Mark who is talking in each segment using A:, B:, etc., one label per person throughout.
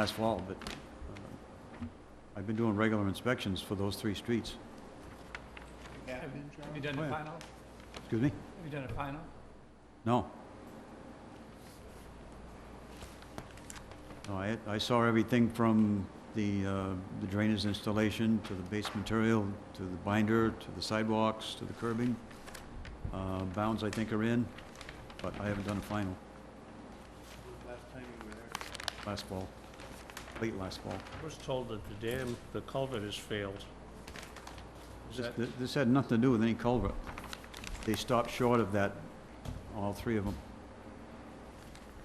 A: last fall, but uh, I've been doing regular inspections for those three streets.
B: Have have you done
A: Oh,
B: a
A: yeah.
B: final?
A: Excuse me?
B: Have you done a final?
A: No. No, I, I saw everything from the, uh, the drainage installation, to the base material, to the binder, to the sidewalks, to the curbing. Uh, bounds I think are in, but I haven't done a final
C: Last time you were there.
A: last fall, late last fall.
D: I was told that the dam, the culvert has failed. Is
A: This,
D: that,
A: th- this had nothing to do with any culvert. They stopped short of that, all three of them.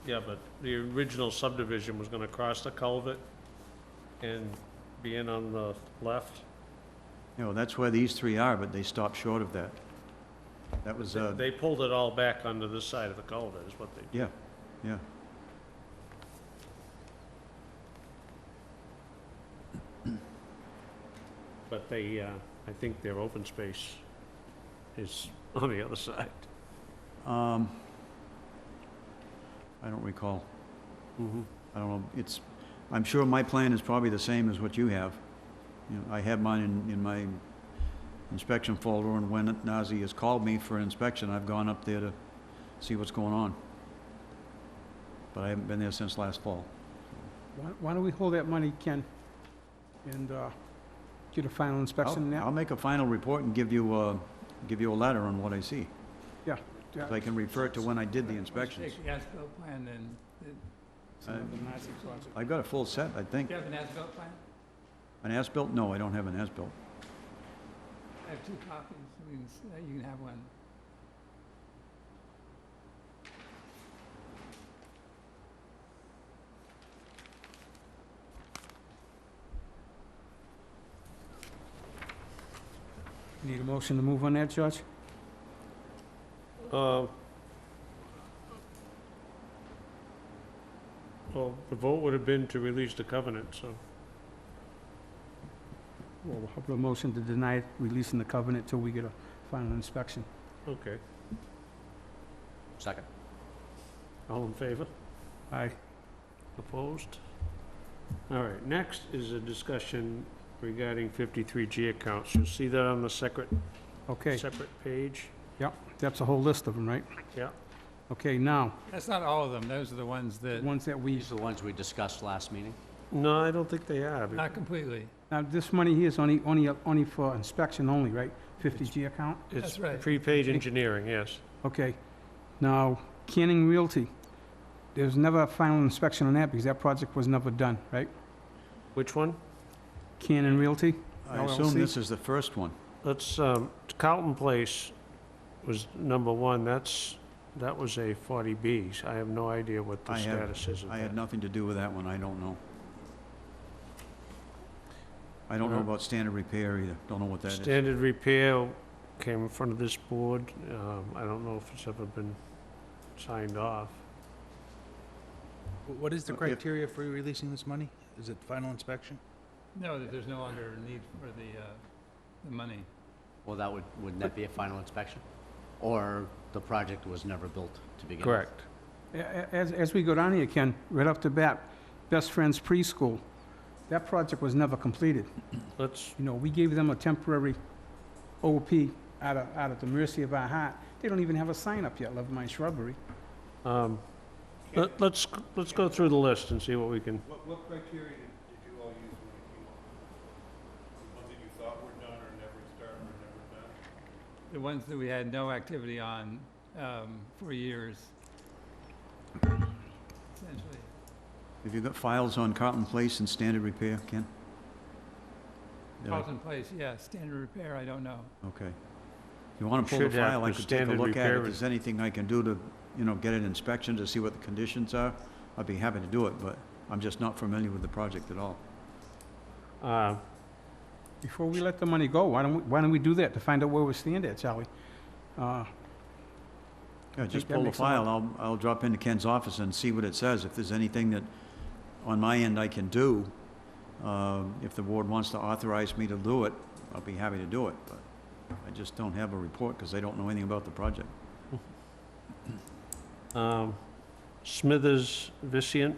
D: yeah, but the original subdivision was gonna cross the culvert and be in on the left.
A: You know, that's where these three are, but they stopped short of that. That was, uh,
D: They pulled it all back onto this side of the culvert is what they,
A: yeah, yeah.
D: but they, uh, I think their open space is on the other side.
A: Um, I don't recall.
D: Mm-hmm.
A: I don't know, it's, I'm sure my plan is probably the same as what you have. You know, I have mine in, in my inspection folder, and when Nazi has called me for an inspection, I've gone up there to see what's going on. But I haven't been there since last fall.
E: Why- Why don't we hold that money, Ken, and uh, get a final
A: I'll,
E: inspection and
A: I'll
E: that?
A: make a final report and give you, uh, give you a letter on what I see.
E: Yeah,
A: So I
E: yeah.
A: can refer to when I did the inspections.
B: Take the as-built plan and, and-
E: Some of the Nazi clause.
A: I've got a full set, I think.
B: do you have an as-built plan?
A: An as-built? No, I don't have an as-built.
B: I have two copies, I mean, s- uh, you can have one.
E: Need a motion to move on that, George?
D: Uh, Well, the vote would have been to release the covenant, so,
E: Well, how about a motion to deny releasing the covenant till we get a final inspection?
D: okay.
C: Second.
D: All in favor?
E: Aye.
D: Opposed? All right, next is a discussion regarding 53G accounts. You'll see that on the separate,
E: Okay,
D: separate page.
E: that's a whole list of them, right?
D: Yeah.
E: Okay, now,
B: That's not all of them, those are the ones
E: the
B: that,
E: ones that we,
C: These are the ones we discussed last meeting?
D: No, I don't think they are. be-
B: not completely.
E: now, this money here is only, only, only for inspection only, right? 50G account?
D: It's
B: That's right.
D: prepaid engineering, yes.
E: Okay. Now, Canning Realty, there's never a final inspection on that because that project was never done, right?
D: Which one?
E: Canning Realty?
A: I assume
E: LLC?
A: this is the first one.
D: Let's, um, Carlton Place was number one. That's, that was a 40B. I have no idea what the
A: I have-
D: status is of
A: I had
D: that.
A: nothing to do with that one, I don't know. I don't know
D: Uh-huh.
A: about standard repair either, don't know what that is.
D: Standard repair came in front of this board. Um, I don't know if it's ever been signed off.
C: What is the
A: Uh, if-
C: criteria for releasing this money? Is it final inspection?
B: No, that there's no longer a need for the, uh, the money.
F: Well, that would, wouldn't that be a final inspection? Or the project was never built to begin with?
D: Correct.
E: A- a- As, as we go down here, Ken, right off the bat, Best Friends Preschool, that project was never completed.
D: Let's
E: You know, we gave them a temporary OP out of, out of the mercy of our heart. They don't even have a sign up yet, Love My Shrubbery.
D: Um, let- Let's, let's go through the list and see what we can,
G: What, what criteria did, did you all use when you came up? The ones that you thought were done or never started or never done?
B: The ones that we had no activity on, um, for years. Essentially,
A: Have you got files on Carlton Place and standard repair, Ken? Did I-
B: Carlton Place, yeah, standard repair, I don't know.
A: Okay. If you want to pull the
D: Should have
A: file, I
D: the
A: could take a
D: standard
A: look at it.
D: repair
A: If
D: and-
A: there's anything I can do to, you know, get an inspection to see what the conditions are, I'd be happy to do it, but I'm just not familiar with the project at all.
D: uh,
E: Before we let the money go, why don't we, why don't we do that to find out where we stand at, Charlie? Uh,
A: Yeah, just
E: that
A: pull the
E: makes a lot-
A: file, I'll, I'll drop into Ken's office and see what it says. If there's anything that, on my end, I can do, um, if the board wants to authorize me to do it, I'll be happy to do it, but I just don't have a report because I don't know anything about the project.
D: um, Smithers Vicient,